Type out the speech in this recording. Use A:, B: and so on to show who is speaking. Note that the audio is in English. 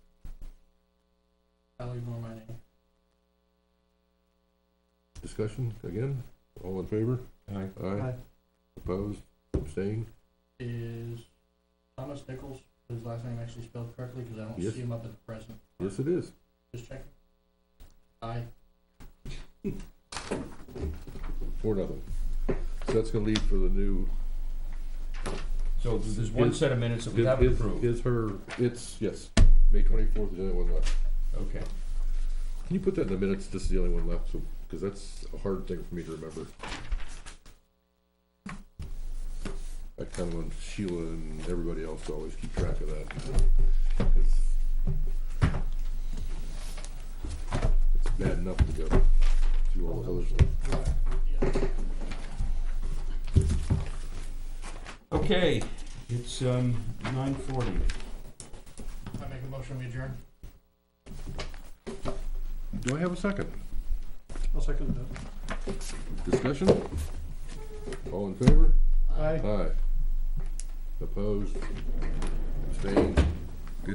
A: Valley more money.
B: Discussion again, all in favor?
C: Aye.
B: Aye,
A: Aye.
B: opposed, abstained,
A: Is Thomas Nichols, his last name actually spelled correctly, because I don't
B: Yes.
A: see him up at the present,
B: yes it is.
A: just checking. Aye,
B: Four nothing. So that's gonna lead for the new.
C: So there's one
B: Is-
C: set of minutes that we haven't
B: Is-
C: approved.
B: Is her, it's, yes, May twenty-fourth is the only one left.
C: Okay.
B: Can you put that in the minutes, this is the only one left, so, because that's a hard thing for me to remember. I kind of want Sheila and everybody else to always keep track of that. 'cause It's bad enough to go through all the others.
C: Okay, it's, um, nine forty.
A: I make a motion, we adjourn.
B: Do I have a second?
D: I'll second that.
B: Discussion? All in favor?
D: Aye.
B: Aye. Opposed? Abstained?